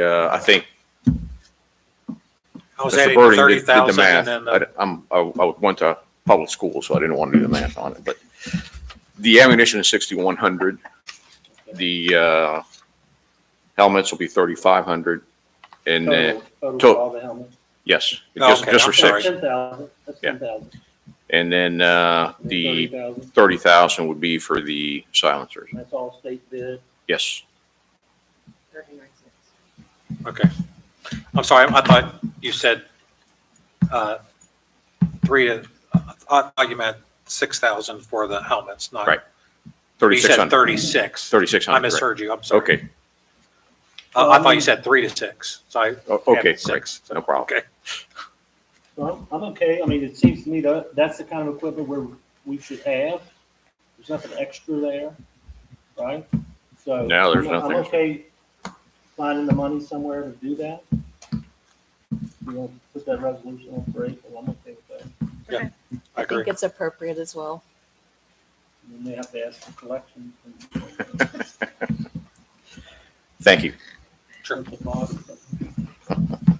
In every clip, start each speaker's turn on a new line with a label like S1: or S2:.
S1: uh, I think
S2: I was
S1: Mr.
S2: adding
S1: Birding
S2: thirty
S1: did- did the
S2: thousand
S1: math.
S2: and then,
S1: I d-
S2: the-
S1: I'm, I I went to public school, so I didn't want to do the math on it, but the ammunition is sixty-one hundred. The, uh, helmets will be thirty-five hundred. And then,
S3: Total,
S1: to-
S3: total all the helmets.
S1: yes,
S2: Oh,
S1: just,
S2: okay,
S1: just for
S2: I'm sorry.
S1: six.
S3: Ten thousand, that's
S1: Yeah.
S3: ten thousand.
S1: And then, uh,
S3: Thirty
S1: the
S3: thousand,
S1: thirty thousand would be for the silencers.
S3: that's all state bid.
S1: Yes.
S2: okay. I'm sorry, I thought you said, uh, three, to- I thought you meant six thousand for the helmets, not.
S1: Right,
S2: You
S1: Thirty-six
S2: said
S1: hundred.
S2: thirty-six.
S1: Thirty-six
S2: I
S1: hundred.
S2: misheard you, I'm sorry. Uh,
S1: Okay.
S2: I, I thought you said three to six, so I.
S1: O- Okay,
S2: added
S1: great.
S2: six.
S1: No problem.
S2: Okay,
S3: So I'm, I'm okay, I mean, it seems to me that, that's the kind of equipment where we should have. There's nothing extra there, right? So.
S1: No, there's
S3: I'm-
S1: nothing
S3: I'm
S1: extra.
S3: okay finding the money somewhere to do that. You know, put that resolution on break, and I'm okay with that.
S2: I
S4: I
S2: agree.
S4: think it's appropriate as well.
S3: And then they have to ask for collections and.
S1: Thank you.
S2: Sure.
S3: Central Box and stuff.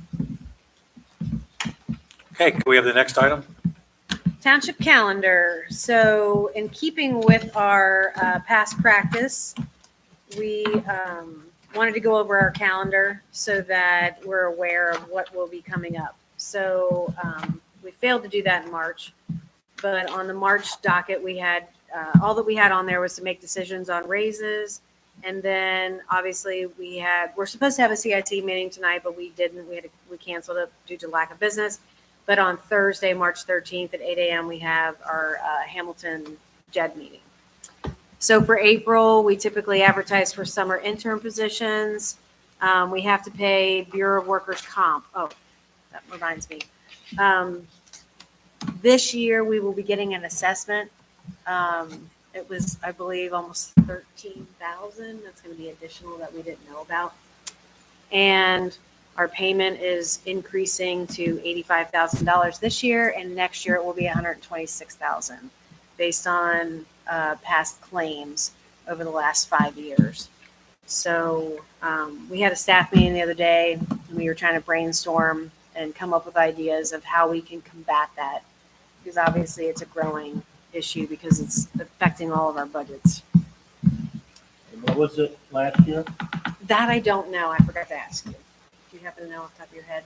S2: Okay, can we have the next item?
S5: Township calendar. So in keeping with our uh, past practice, we um, wanted to go over our calendar so that we're aware of what will be coming up. So um, we failed to do that in March, but on the March docket, we had, uh, all that we had on there was to make decisions on raises. And then obviously we had, we're supposed to have a CIT meeting tonight, but we didn't. We had, we canceled it due to lack of business. But on Thursday, March 13th at 8 AM, we have our uh, Hamilton JED meeting. So for April, we typically advertise for summer intern positions. Um, We have to pay Bureau of Workers Comp. Oh, that reminds me. Um, This year, we will be getting an assessment. Um, It was, I believe, almost 13,000. That's going to be additional that we didn't know about. And our payment is increasing to eighty-five thousand dollars this year, and next year it will be $126,000 based on uh, past claims over the last five years. So um, we had a staff meeting the other day, and we were trying to brainstorm and come up with ideas of how we can combat that, because obviously it's a growing issue because it's affecting all of our budgets.
S3: And What was it last year?
S5: That I don't know. I forgot to ask you. Do you happen to know off the top of your head?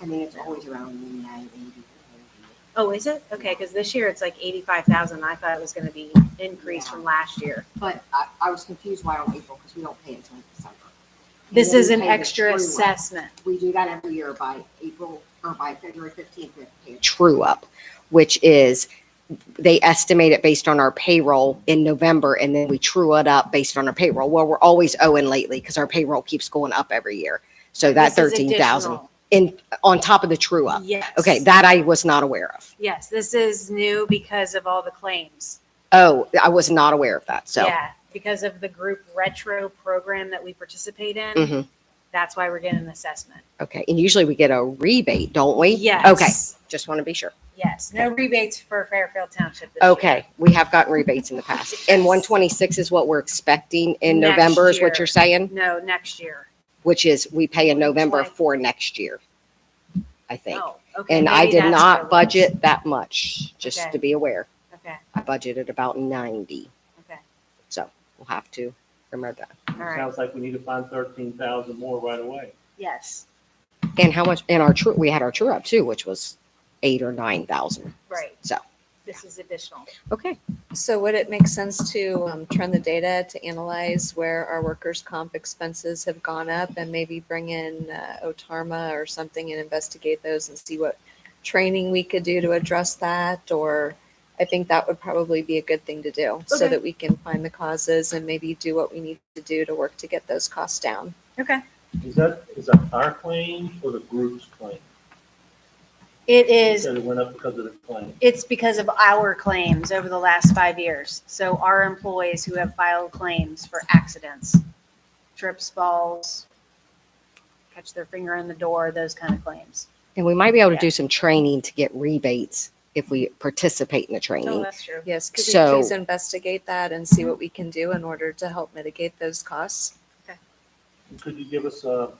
S6: I think it's always around midnight, maybe.
S5: Oh, is it? Okay, because this year it's like eighty-five thousand. I thought it was gonna be increased from last year.
S6: But I, I was confused why on April, because we don't pay until December. And
S5: This
S6: then
S5: is
S6: we
S5: an
S6: pay the
S5: extra
S6: true up.
S5: assessment.
S6: We do that every year by April, or by February fifteenth, we have to pay a true up, which is, they estimate it based on our payroll in November, and then we true it up based on our payroll. Well, we're always owing lately, because our payroll keeps going up every year. So that
S5: This is
S6: thirteen thousand,
S5: additional.
S6: in, on top of the true up.
S5: Yes.
S6: Okay, that I was not aware of.
S5: Yes, this is new because of all the claims.
S6: Oh, I was not aware of that, so.
S5: Yeah, because of the group retro program that we participate in.
S6: Mhm.
S5: That's why we're getting an assessment.
S6: Okay, and usually we get a rebate, don't we? Okay,
S5: Yes.
S6: just want to be sure.
S5: Yes, no rebates for Fairfield Township this year.
S6: Okay, we have gotten rebates in the past. And one twenty-six is what we're expecting in
S5: Next
S6: November, is what
S5: year.
S6: you're saying?
S5: No, next year.
S6: Which is, we pay in November
S5: Twenty.
S6: for next year, I think.
S5: Oh, okay.
S6: And I
S5: maybe
S6: did
S5: that's what it
S6: not
S5: was.
S6: budget that much, just
S5: Okay.
S6: to be aware.
S5: Okay,
S6: I budgeted about ninety,
S5: okay,
S6: so we'll have to remember that.
S5: all right.
S3: Sounds like we need to find thirteen thousand more right away.
S5: Yes,
S6: And how much, and our true, we had our true up too, which was eight or nine thousand,
S5: right.
S6: so,
S5: This is additional.
S6: okay.
S4: So would it make sense to um, trend the data to analyze where our workers' comp expenses have gone up and maybe bring in uh, OTARMA or something and investigate those and see what training we could do to address that? Or I think that would probably be a good thing to do so
S5: Okay.
S4: that we can find the causes and maybe do what we need to do to work to get those costs down.
S5: Okay.
S3: Is that, is that our claim or the group's claim?
S5: It
S3: It
S5: is
S3: said it went up because of the claim.
S5: It's because of our claims over the last five years. So our employees who have filed claims for accidents, trips, falls, catch their finger in the door, those kind of claims.
S6: And we might be able to
S5: Yeah.
S6: do some training to get rebates if we participate in the training.
S5: Oh, that's true.
S4: Yes, could you
S6: So-
S4: please investigate that and see what we can do in order to help mitigate those costs?
S3: Could you give us a